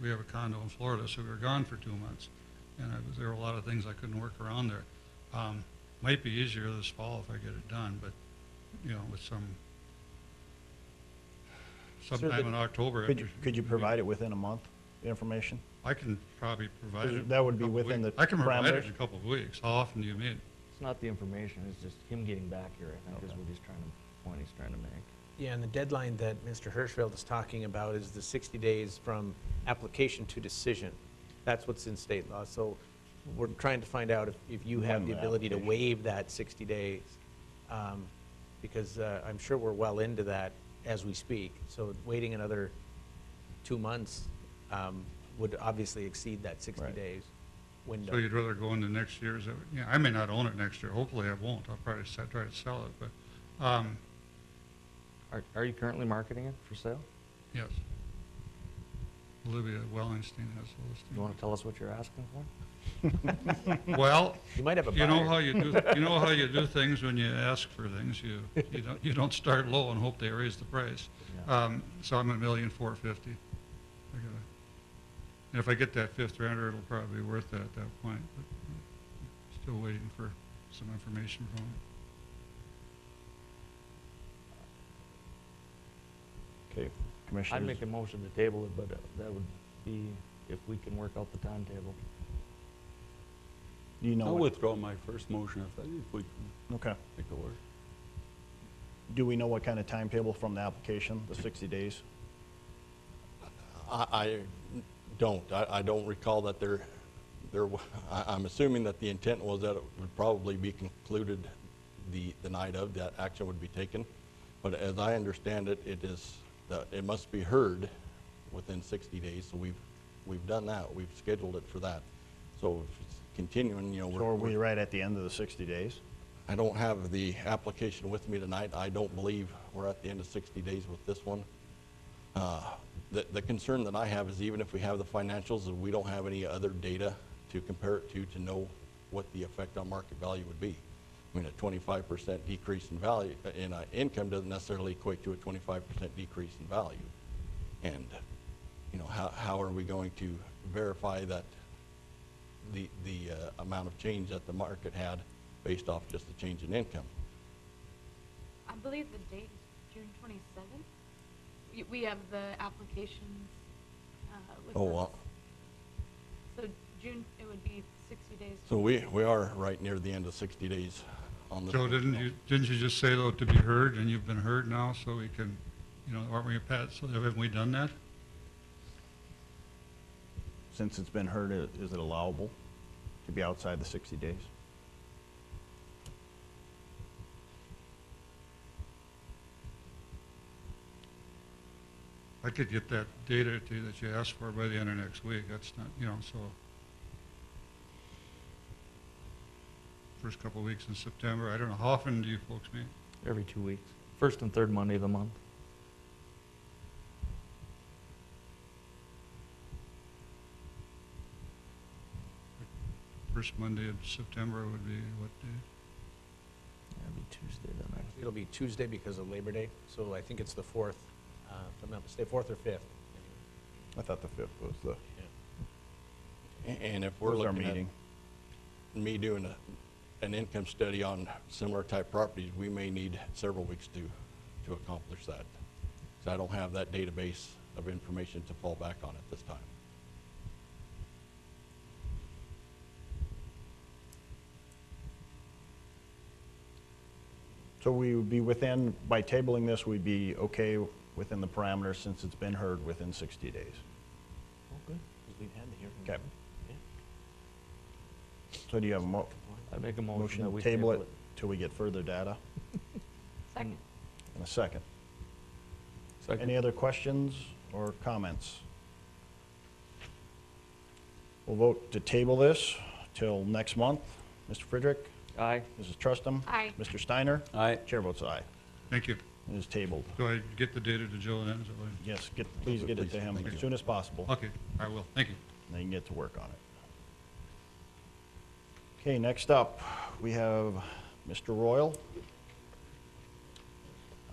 we have a condo in Florida, so we were gone for two months. And I was, there were a lot of things I couldn't work around there. Um, might be easier this fall if I get it done, but, you know, with some, the- sometime in October. Could you, after- could you provide it within a month, the information? I can probably provide it. That would be in a couple within weeks. the I can provide it parameters? in a couple of weeks. How often do you meet? It's not the information, it's just him getting back here, I think, is what he's trying to, point he's trying to make. Yeah, and the deadline that Mr. Hirschfeld is talking about is the 60 days from application to decision. That's what's in state law. So we're trying to find out if, if you have When the the ability to application- waive that 60 days. um, Because uh, I'm sure we're well into that as we speak. So waiting another two months um, would obviously exceed that 60 Right. days window. So you'd rather go into next year's, uh, yeah, I may not own it next year. Hopefully I won't. I'll probably se- try to sell it, but, um, Are, are you currently marketing it for sale? yes. Olivia Wellingstein has a listing. You want to tell us what you're asking for? Well, You might have a you know how buyer. you do, you know how you do things when you ask for things. You, you don't, you don't start low and hope they raise the price. Um, so I'm a million four fifty. I gotta, and if I get that fifth rounder, it'll probably be worth that at that point, but uh, still waiting for some information from him. Okay, I'd Commissioners, make a motion to table it, but uh, that would be if we can work out the timetable. do you know I'll what, withdraw my first motion if that, if we can okay. make it work. Do we know what kind of timetable from the application, the 60 days? I, I don't. I, I don't recall that there, there, wa- I, am assuming that the intent was that it would probably be concluded the, the night of, that action would be taken. But as I understand it, it is, the- it must be heard within 60 days, so we've, we've done that. We've scheduled it for that. So if it's continuing, you know, So are we're, we we're- right at the end of the 60 days? I don't have the application with me tonight. I don't believe we're at the end of 60 days with this one. Uh, The the concern that I have is even if we have the financials, we don't have any other data to compare it to, to know what the effect on market value would be. I mean, a 25% decrease in value, in uh, income doesn't necessarily equate to a 25% decrease in value. And, you know, how how are we going to verify that the the uh, amount of change that the market had based off just the change in income? I believe the date is June twenty-seventh. We, we have the applications, uh, with Oh, us. wow. So June, it would be sixty days. So we, we are right near the end of 60 days on this. Joe, one. didn't you, didn't you just say though to be heard, and you've been heard now, so we can, you know, aren't we, Pat, so haven't we done that? Since it's been heard, i- is it allowable to be outside the 60 days? I could get that data to you that you asked for by the end of next week, that's not, you know, so. First couple of weeks in September, I don't know, how often do you folks meet? Every two weeks, first and third Monday of the month. First Monday of September would be what day? That'd be Tuesday then, I It'll be Tuesday because of Labor Day, so I think it's the 4th, uh, if I'm not mistaken, 4th or 5th. I thought the 5th was the, A- And if we're was our looking meeting. at me doing a, an income study on similar type properties, we may need several weeks to, to accomplish that. So I don't have that database of information to fall back on at this time. So we would be within, by tabling this, we'd be okay within the parameters since it's been heard within 60 days? Okay. Because we've had the hearing. Okay. So do you have a mo- I'd make a motion that motion we to table it till we get further data? Second. In a second. Second. Any other questions or comments? We'll vote to table this till next month. Mr. Friedrich, Aye. Mrs. Trustum. Aye. Mr. Steiner. Aye. Chair votes aye. Thank you. It is tabled. Do I get the data to Joe then? Is that what I- Yes, get, please get it to him Thank as you. soon as possible, and Okay, I will, thank you. they can get to work on it. Okay, next up, we have Mr. Royal.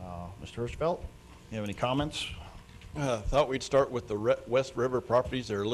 Uh, Mr. Hirschfeld, you have any comments? Uh, Thought we'd start with the Re- West River properties. They're a little